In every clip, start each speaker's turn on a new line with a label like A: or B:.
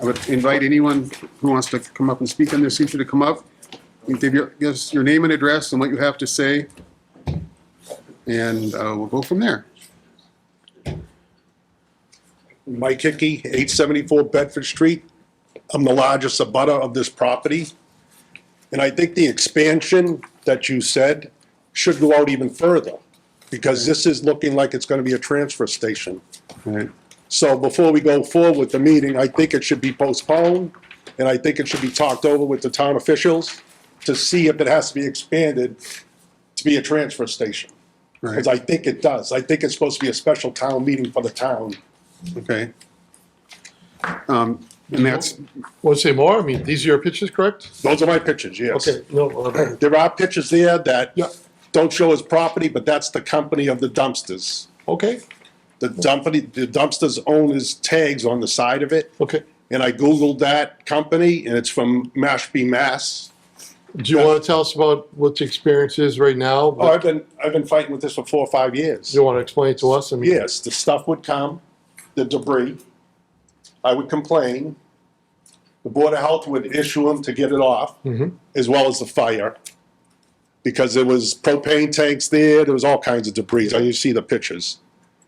A: I would invite anyone who wants to come up and speak on this issue to come up. and Give your, give us your name and address and what you have to say. And uh, we'll go from there.
B: Mike Hickey, 874 Bedford Street. I'm the largest abutter of this property. And I think the expansion that you said should go out even further, because this is looking like it's going to be a transfer station.
A: Right.
B: So before we go forward with the meeting, I think it should be postponed, and I think it should be talked over with the town officials to see if it has to be expanded to be a transfer station. Because
A: Right,
B: I think it does. I think it's supposed to be a special town meeting for the town.
A: okay. Um, And that's,
C: Want to say more? I mean, these are your pictures, correct?
B: Those are my pictures, yes.
C: Okay, no, uh,
B: There are pictures there that
C: Yeah.
B: don't show his property, but that's the company of the dumpsters.
C: okay,
B: The dumpy, the dumpsters own his tags on the side of it,
C: okay.
B: and I Googled that company, and it's from Mashpee, Mass.
C: Do you want to tell us about what the experience is right now?
B: Oh, I've been, I've been fighting with this for four or five years.
C: Do you want to explain it to us? I mean,
B: Yes, the stuff would come, the debris. I would complain. The Board of Health would issue them to get it off,
C: Mhm.
B: as well as the fire. Because there was propane tanks there, there was all kinds of debris, and you see the pictures.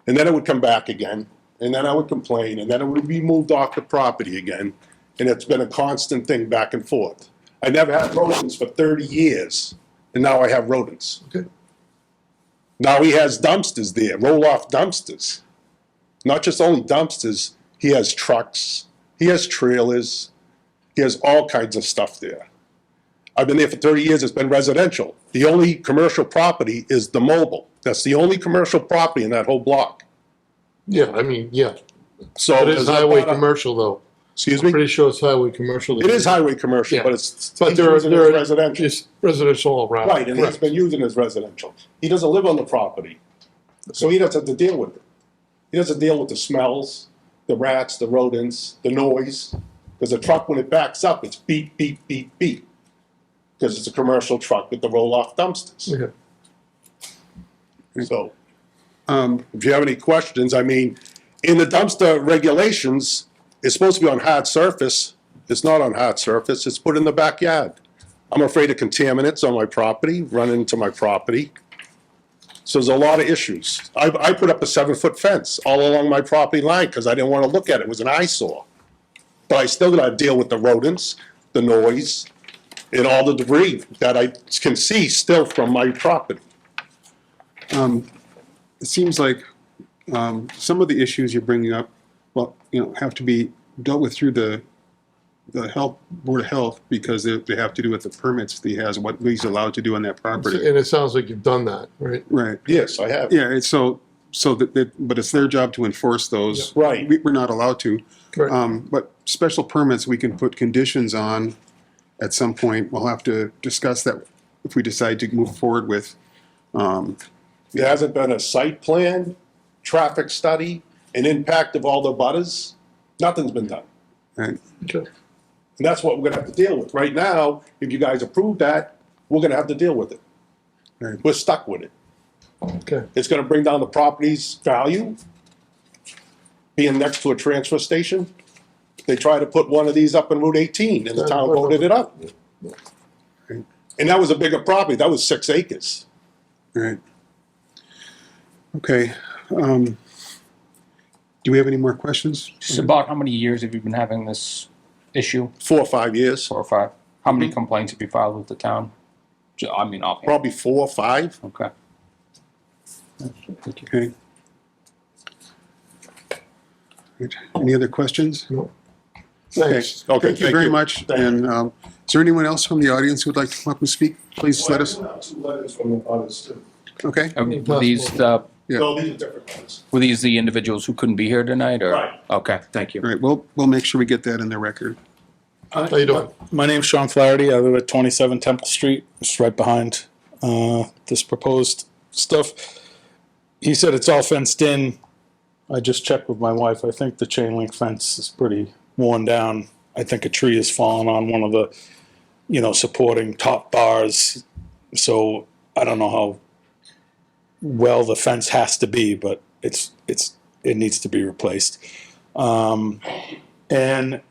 B: And then it would come back again, and then I would complain, and then it would be moved off the property again. And it's been a constant thing back and forth. I never had rodents for thirty years, and now I have rodents.
C: Okay.
B: Now he has dumpsters there, roll off dumpsters. Not just only dumpsters, he has trucks, he has trailers, he has all kinds of stuff there. I've been there for 30 years, it's been residential. The only commercial property is the mobile. That's the only commercial property in that whole block.
C: Yeah, I mean, yeah.
B: So
C: It is
B: there's not a
C: highway
B: lot of-
C: commercial, though.
B: Excuse
C: I'm
B: me?
C: pretty sure it's highway commercial.
B: It is highway commercial,
C: Yeah.
B: but it's.
C: But there are,
B: he's using it
C: there
B: as
C: are.
B: Residential.
C: It's residential all around.
B: Right, and he's been using his residential. He doesn't live on the property, so he doesn't have to deal with it. He doesn't deal with the smells, the rats, the rodents, the noise, because the truck, when it backs up, it's beep, beep, beep, beep, because it's a commercial truck with the roll-off dumpsters.
C: Okay.
B: So,
A: um,
B: if you have any questions, I mean, in the dumpster regulations, it's supposed to be on hard surface. It's not on hard surface, it's put in the backyard. I'm afraid of contaminants on my property, run into my property. So there's a lot of issues. I, I put up a seven-foot fence all along my property line because I didn't want to look at it, it was an eyesore. But I still gotta deal with the rodents, the noise, and all the debris that I can see still from my property.
A: um, it seems like um, some of the issues you're bringing up, well, you know, have to be dealt with through the, the health, Board of Health, because they, they have to do with the permits that he has, what he's allowed to do on that property.
C: And it sounds like you've done that, right?
A: Right,
B: Yes, I have.
A: yeah, it's so, so that, that, but it's their job to enforce those.
B: Yeah. Right.
A: We, we're not allowed to.
C: Right.
A: Um, but special permits, we can put conditions on at some point. We'll have to discuss that if we decide to move forward with. Um,
B: There hasn't been a site plan, traffic study, an impact of all the butters. Nothing's been done.
A: right,
C: Okay.
B: And that's what we're gonna have to deal with. Right now, if you guys approve that, we're gonna have to deal with it.
A: Right.
B: We're stuck with it.
C: Okay.
B: It's gonna bring down the property's value, being next to a transfer station. They tried to put one of these up in Route eighteen, and the town voted it up. And that was a bigger property, that was six acres.
A: right. Okay, um, do we have any more questions?
D: Just about how many years have you been having this issue?
B: Four or five years,
D: Four or five? How many complaints have you filed with the town? Mm-hmm. Ju- I mean, offhand.
B: probably four or five.
D: Okay.
A: Okay. Right, Any other questions?
C: No.
A: Okay,
C: Thanks.
B: Okay,
A: thank you
B: thank
A: very
B: you.
A: much.
B: Thank you.
A: And, um, is there anyone else from the audience who would like to come up and speak? Please let us,
B: Well, I do have Two letters from the others too.
A: okay?
D: Uh, Were these, the
A: Yeah.
B: No, these are different ones.
D: were these the individuals who couldn't be here tonight, or?
B: Right.
D: Okay, thank you.
A: All right, we'll, we'll make sure we get that in the record.
C: How you doing?
E: My name's Sean Flaherty. I live at 27 Temple Street. It's right behind uh, this proposed stuff. He said it's all fenced in. I just checked with my wife. I think the chain link fence is pretty worn down. I think a tree has fallen on one of the, you know, supporting top bars. So I don't know how well the fence has to be, but it's it's it needs to be replaced. Um, and